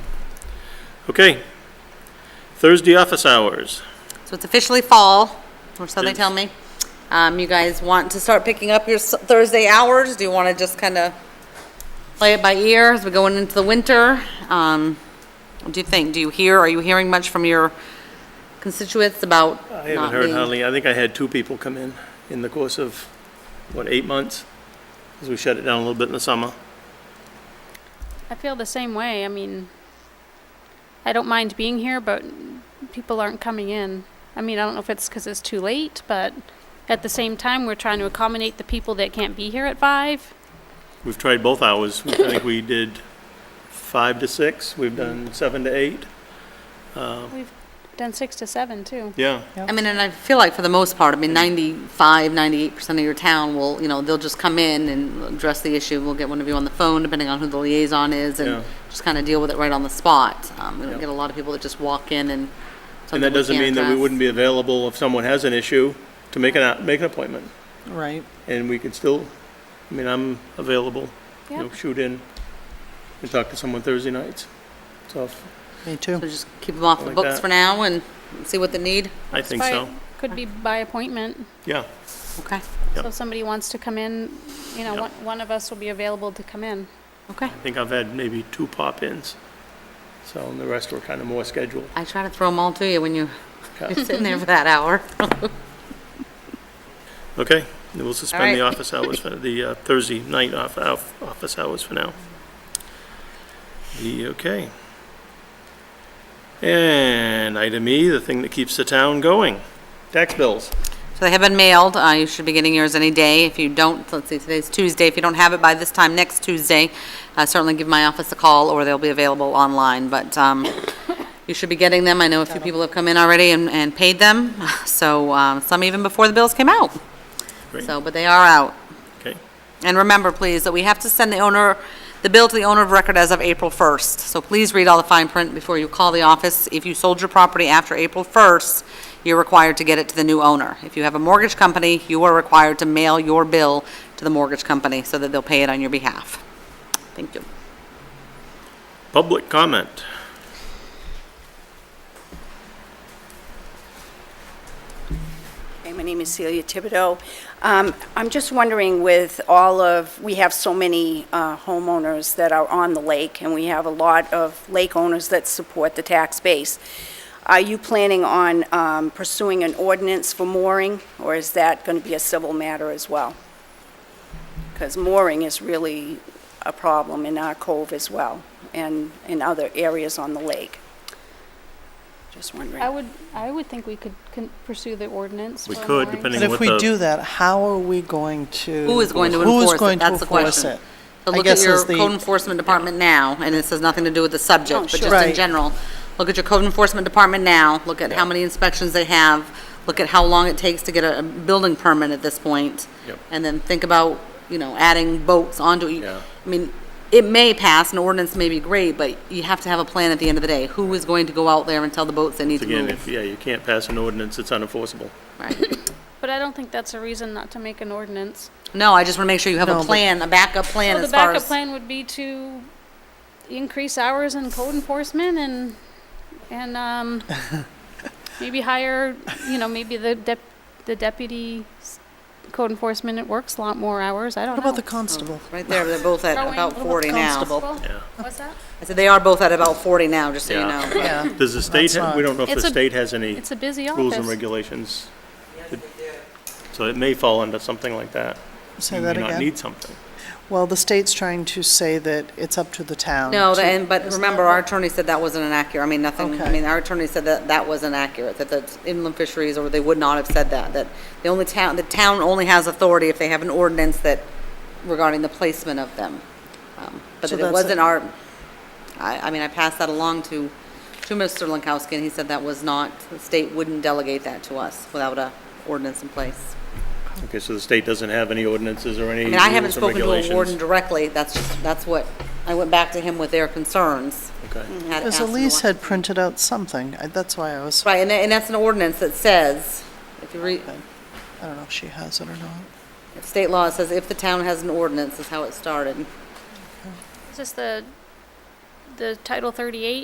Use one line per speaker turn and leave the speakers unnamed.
Okay. Thursday office hours.
So it's officially fall, or so they tell me. Um, you guys want to start picking up your s- Thursday hours? Do you want to just kind of play it by ear as we're going into the winter? Um, what do you think? Do you hear, are you hearing much from your constituents about
I
not
haven't heard
being-
hardly, I think I had two people come in, in the course of, what, eight months? Because we shut it down a little bit in the summer.
I feel the same way. I mean, I don't mind being here, but people aren't coming in. I mean, I don't know if it's because it's too late, but at the same time, we're trying to accommodate the people that can't be here at five.
We've tried both hours. I think we did five to six, we've done seven to eight.
We've done six to seven too.
Yeah.
I mean, and I feel like for the most part, I mean, 95, 98% of your town will, you know, they'll just come in and address the issue. We'll get one of you on the phone, depending on who the liaison is,
Yeah.
and just kind of deal with it right on the spot. Um, We
Yeah.
don't get a lot of people that just walk in and
And that doesn't mean that we wouldn't be available if someone has an issue to make an, make an appointment.
Right.
And we could still, I mean, I'm available. You know,
Yep.
shoot in and talk to someone Thursday nights. So if-
Me too.
So just keep them off the
Like
books
that.
for now and see what they need.
I think so.
By- Could be by appointment.
Yeah.
Okay,
So if somebody wants to come in, you know,
Yeah.
one, one of us will be available to come in.
okay.
I think I've had maybe two pop-ins. So, and the rest were kind of more scheduled.
I try to throw them all to you when you-
Yeah.
you're sitting there for that hour.
Okay, then we'll suspend the
right.
office hours, for the uh, Thursday night off, off- office hours for now. The, okay. And item E, the thing that keeps the town going, tax bills.
So they have been mailed, uh, you should be getting yours any day, if you don't, let's see, today's Tuesday, if you don't have it by this time next Tuesday, uh, certainly give my office a call, or they'll be available online, but, um, you should be getting them, I know a few people have come in already and, and paid them, so, um, some even before the bills came out.
Great.
So, but they are out.
Okay,
And remember, please, that we have to send the owner, the bill to the owner of record as of April 1st. So please read all the fine print before you call the office. If you sold your property after April 1st, you're required to get it to the new owner. If you have a mortgage company, you are required to mail your bill to the mortgage company so that they'll pay it on your behalf. Thank you.
public comment.
Hey, my name is Celia Thibodeau. Um, I'm just wondering with all of, we have so many uh, homeowners that are on the lake, and we have a lot of lake owners that support the tax base. Are you planning on um, pursuing an ordinance for mooring, or is that going to be a civil matter as well? Because mooring is really a problem in our cove as well, and in other areas on the lake. Just wondering.
I would, I would think we could con- pursue the ordinance.
We
for
could,
mooring.
depending-
But
Seeing
if
what
we
the-
do that, how are we going to?
Who is going to
who is
enforce it?
going to
That's the
enforce
question.
it?
So
I
look at
guess
your
is the-
code enforcement department now, and this has nothing to do with the subject,
Oh,
but
sure.
just in
Right.
general. Look at your code enforcement department now, look at how many inspections they have, look at how long it takes to get a a building permit at this point.
Yep.
And then think about, you know, adding boats onto it.
Yeah.
I mean, it may pass, an ordinance may be great, but you have to have a plan at the end of the day. Who is going to go out there and tell the boats they need to
Again, if,
move?
yeah, you can't pass an ordinance, it's unenforceable.
Right.
But I don't think that's a reason not to make an ordinance.
No, I just want to make sure you have
No,
a
but-
plan, a backup plan
So the
as far
backup
as.
plan would be to increase hours in code enforcement and, and, um, maybe hire, you know, maybe the dep, the deputy s- code enforcement, it works a lot more hours, I don't
What
know.
about the constable?
Right there, they're both at
Throwing
about
little
40 now.
constable.
Yeah.
What's that?
I said they are both at about 40 now, just so you
Yeah.
know.
Yeah.
Does the state,
That's
ha- we
not-
don't know if
It's
the
a-
state has any
It's a busy
rules and
office.
regulations. So it may fall under something like that.
Say
We
that
may not
again.
need something.
Well, the state's trying to say that it's up to the town.
No,
to-
the- and, but remember, our attorney said that wasn't inaccurate, I mean, nothing, I
Okay.
mean, our attorney said that that wasn't accurate, that the inland fisheries, or they would not have said that, that the only town, the town only has authority if they have an ordinance that, regarding the placement of them. Um, But
So
that it
that's
wasn't
a-
our, I, I mean, I passed that along to, to Mr. Lankowski, and he said that was not, the state wouldn't delegate that to us without a ordinance in place.
Okay, so the state doesn't have any ordinances or any
I
rules
mean, I haven't
and
spoken to a warden
regulations?
directly, that's just, that's what, I went back to him with their concerns.
Okay.
Had
Because
asked him to
Elise
look-
had printed out something. I- That's why I was, I
Right, and, and that's an ordinance that says, if you read,
don't know if she has it or not.
if state law it says if the town has an ordinance, is how it started.
Is this the, the Title 38